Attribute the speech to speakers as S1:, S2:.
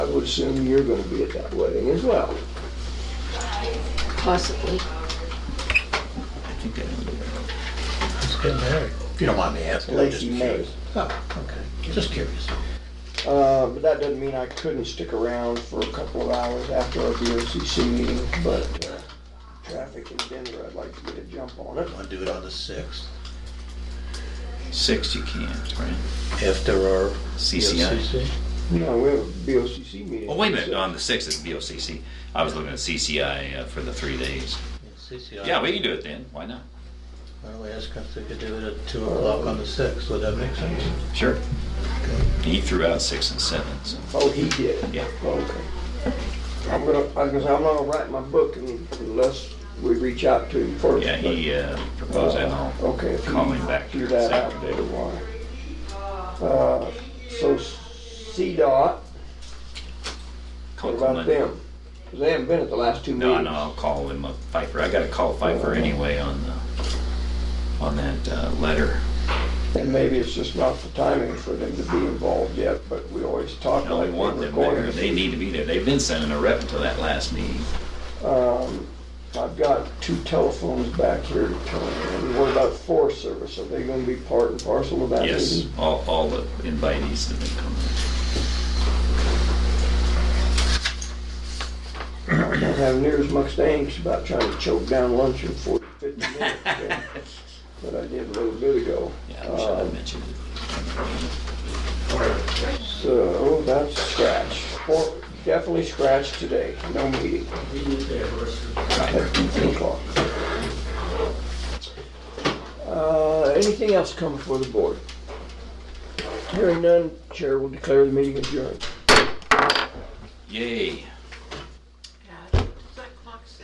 S1: would assume you're gonna be at that wedding as well.
S2: possibly.
S3: I think that would be better.
S4: It's getting married. If you don't mind me asking. I'm just
S1: Lacey May.
S4: curious. Oh, okay. Just curious.
S1: Uh, but that doesn't mean I couldn't stick around for a couple of hours after our BOCC meeting, but, uh, traffic in Denver, I'd like to get a jump on it.
S4: Want to do it on the sixth
S3: Six you can't, right?
S4: after our
S3: CCI.
S4: BOCC?
S1: No, we have a BOCC meeting.
S3: Well, Oh, wait a minute, on the sixth is BOCC. I was looking at CCI uh, for the three days.
S4: Yeah, CCI.
S3: Yeah, we can do it then, why not?
S4: Why don't we ask if they could do it at two o'clock on the sixth? Would that make sense?
S3: Sure. He threw out six and seven, so.
S1: Oh, he did? Oh,
S3: Yeah.
S1: Okay. I'm gonna, I was gonna say, I'm not gonna write my book un- unless we reach out to him first.
S3: Yeah, he uh, proposed that, and
S1: but, uh,
S3: I'll
S1: Okay. if you
S3: call him back
S1: Do
S3: here this
S1: that out there,
S3: afternoon.
S1: why? Uh, So CDOT, what
S3: Call him
S1: about
S3: Monday.
S1: them? 'Cause they haven't been at the last two
S3: No,
S1: meetings.
S3: no, I'll call him up, Pfeiffer. I gotta call Pfeiffer anyway on the, on that uh, letter.
S1: And maybe it's just not the timing for them to be involved yet, but we always talk
S3: No,
S1: like
S3: we want
S1: we're
S3: them there.
S1: going
S3: They
S1: to.
S3: need to be there. They've been sending a rep until that last meeting.
S1: Um, I've got two telephones back here to turn in. What about Forest Service? Are they gonna be part and parcel of that meeting?
S3: Yes, all, all the invitees that they come.
S1: I don't have near as much angst about trying to choke down lunch in 40, 50 minutes than- that I did a little bit ago.
S3: Yeah, I wish I
S1: Um,
S3: had mentioned it.
S1: So that's scratch. Four- Definitely scratch today, no meeting at 2 o'clock. Uh, Anything else come before the board? Hearing none, chair will declare the meeting adjourned.
S3: Yay.